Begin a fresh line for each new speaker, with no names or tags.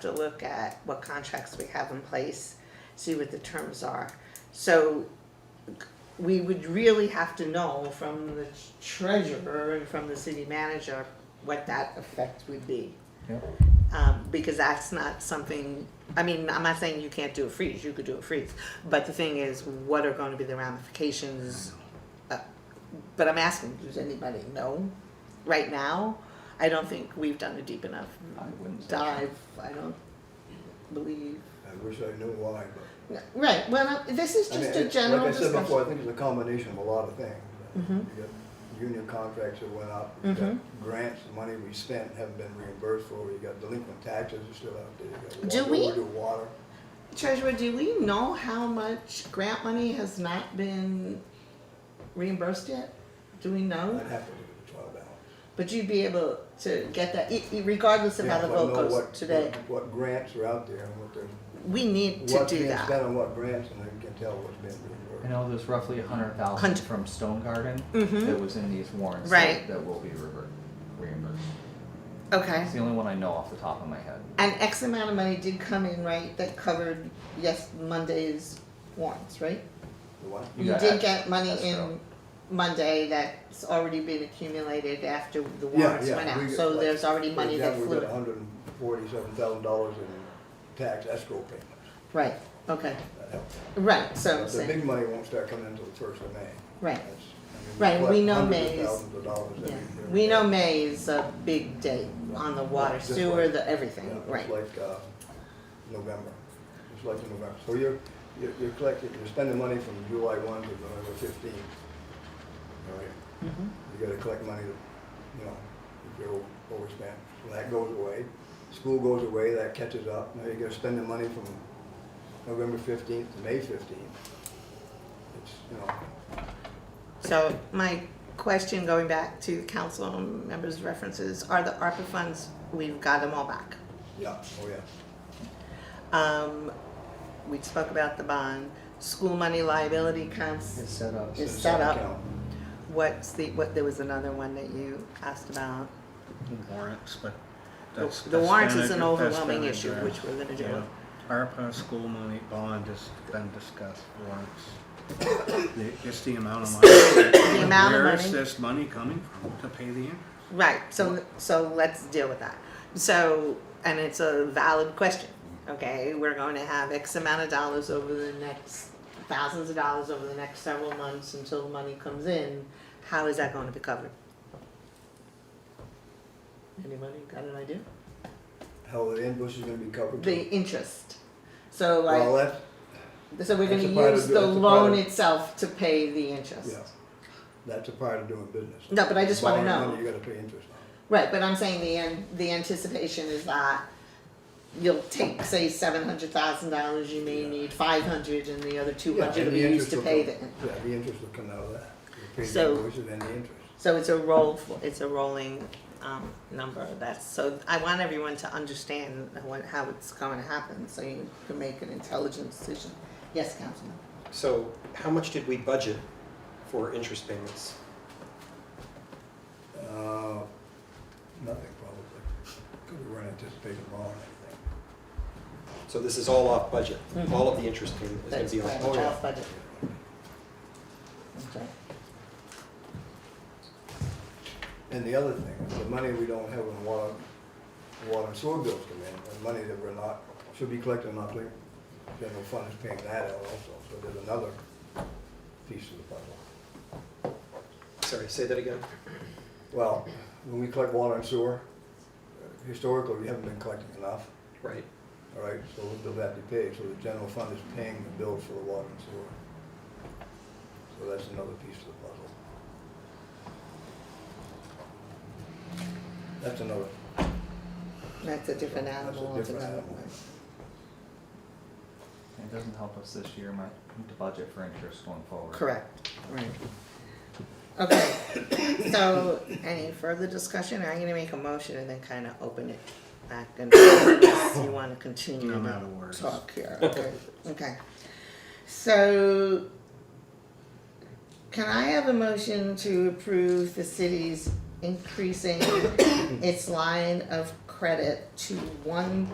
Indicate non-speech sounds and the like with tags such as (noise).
to look at what contracts we have in place, see what the terms are. So we would really have to know from the treasurer and from the city manager what that effect would be.
Yep.
Um, because that's not something, I mean, I'm not saying you can't do a freeze, you could do a freeze. But the thing is, what are gonna be the ramifications? Uh, But I'm asking, does anybody know right now? I don't think we've done a deep enough
I wouldn't say.
dive, I don't believe.
I wish I knew why, but.
No, Right, well, no, this is
I mean,
just a
it's-
general
Like I said before, I
discussion.
think it's a combination of a lot of things.
Mhm.
You got Union contracts that went up, you got
Mhm.
grants, the money we spent and haven't been reimbursed for, you got delinquent taxes are still out there. you got
Do
water,
we?
overdue Water,
Treasurer, do we know how much grant money has not been reimbursed yet? Do we know?
I'd have to look at the trial balance.
But you'd be able to get that, e- e- regardless of how the
Yeah, but
vote
know
goes
what-
today.
what- What grants are out there and what they're,
We need to
what's
do
being
that.
spent on what grants and then we can tell what's being
I
reimbursed.
know there's roughly a hundred thousand
Hundred.
from Stone Garden
Mhm.
that was in these warrants
Right.
that, that will be revert, reimbursed.
Okay.
It's the only one I know off the top of my head.
And X amount of money did come in, right, that covered, yes, Monday's warrants, right?
The what?
You
You
got
did
ex-
get money in
escrow.
Monday that's already been accumulated after the
Yeah,
warrants
yeah,
went out,
we got,
so
like,
there's already
for
money that
example,
flew.
We got hundred and forty-seven thousand dollars in tax escrow payments,
Right, okay,
that helped.
right, so I'm
But The
saying,
big money won't start coming until the first of May.
right,
That's- I mean,
Right, and we
collect
know
hundreds of
May's-
thousands of dollars every
yeah.
year.
We know May is a big day on the water,
Just
sewer,
like-
the
Yeah,
everything, right,
It's like, uh, November, it's like in November. So you're, you're you're collecting, you're spending money from July one to November fifteen. All right,
Mhm.
you gotta collect money, to, you know, if you're o- overspent. So that goes away, school goes away, that catches up. Now you gotta spend the money from November fifteenth to May fifteenth. It's, you know,
So my question, going back to council members' references, are the ARPA funds, we've got them all back.
yeah, oh yeah.
Um, we spoke about the bond, school money liability
It's
counts,
set up.
It's
Is
a
set
separate
up.
account.
what's the, what, there was another one that you asked about.
warrants, but
The
that's.
the
that's
warrants
been
is
a-
an
that's
overwhelming
been a
issue,
draft.
which we're gonna
Yeah.
do.
ARPA, school money, bond has been discussed, warrants.
(coughs)
The- Just the amount of money. The
amount of
Where is
money.
this money coming from to pay the interest?
Right, so, so let's deal with that. So, and it's a valid question, okay? We're going to have X amount of dollars over the next, thousands of dollars over the next several months until the money comes in. How is that going to be covered? Anybody got an idea?
How the invoice is gonna be covered.
The interest. So
Well,
like,
that's,
so we're gonna
that's a part of
use
the-
the
that's a part
loan
of-
itself to pay the interest.
Yeah, that's a part of doing business.
No, but I just wanna
Borrowing
know.
money, You gotta pay interest on it.
Right, but I'm saying the an the anticipation is that you'll take, say, seven hundred thousand dollars, you may
Yeah.
need five hundred and the other two
Yeah,
hundred
and
will
the
be used
interest
to
will
pay the.
come- Yeah, the interest will come out of that. You pay the
So-
invoices and the interest.
So it's a roll, for- it's a rolling, um, number, that's, so I want everyone to understand what, how it's gonna happen, so you can make an intelligent decision. Yes, Councilman?
So how much did we budget for interest payments?
Uh, nothing probably, because we weren't anticipating borrowing anything.
So this is all off budget. All of the interest payment is going
That's
to be
right,
off
off
budget.
budget. Okay.
And the other thing, the money we don't have in water, water and sewer bills come in, the money that we're not, should be collected not like, general fund is paying that out also, so there's another piece of the puzzle.
Sorry, say that again.
Well, when we collect water and sewer, uh, historically, we haven't been collecting enough,
Right.
all right? So the bill that to be paid, so the general fund is paying the bill for the water and sewer. So that's another piece of the puzzle. That's another.
That's a different
That's a
animal
different
altogether.
animal.
It doesn't help us this year, my, to budget for interest going forward.
Correct, right. Okay, (coughs) so any further discussion? I'm gonna make a motion and then kind of open it back and you wanna continue
No
to
matter words.
talk here, okay, okay. So can I have a motion to approve the city's (coughs) increasing its line of credit to one